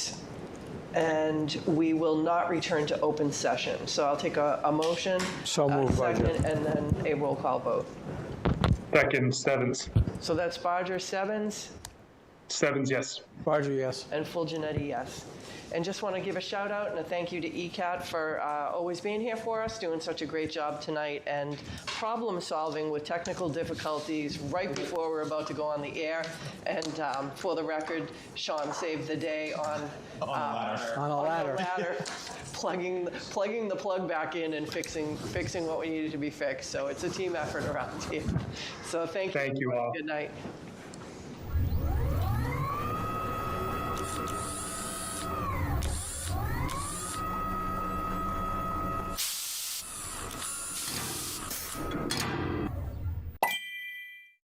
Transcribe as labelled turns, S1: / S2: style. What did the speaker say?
S1: and we will not return to open session. So I'll take a, a motion.
S2: So
S1: a
S2: moved, Roger.
S1: second, And then a roll call vote.
S3: Second, Sevens.
S1: So that's Bodger, Sevens,
S3: Sevens, yes.
S2: Barger, yes.
S1: and Full Janetti, yes. And just want to give a shout out and a thank you to ECAT for uh, always being here for us, doing such a great job tonight, and problem solving with technical difficulties right before we're about to go on the air. And um, for the record, Sean saved the day on uh,
S2: On a
S1: on the
S2: ladder.
S1: ladder, plugging, plugging the plug back in and fixing, fixing what we needed to be fixed. So it's a team effort around here. So thank you.
S3: Thank you all.
S1: Good night.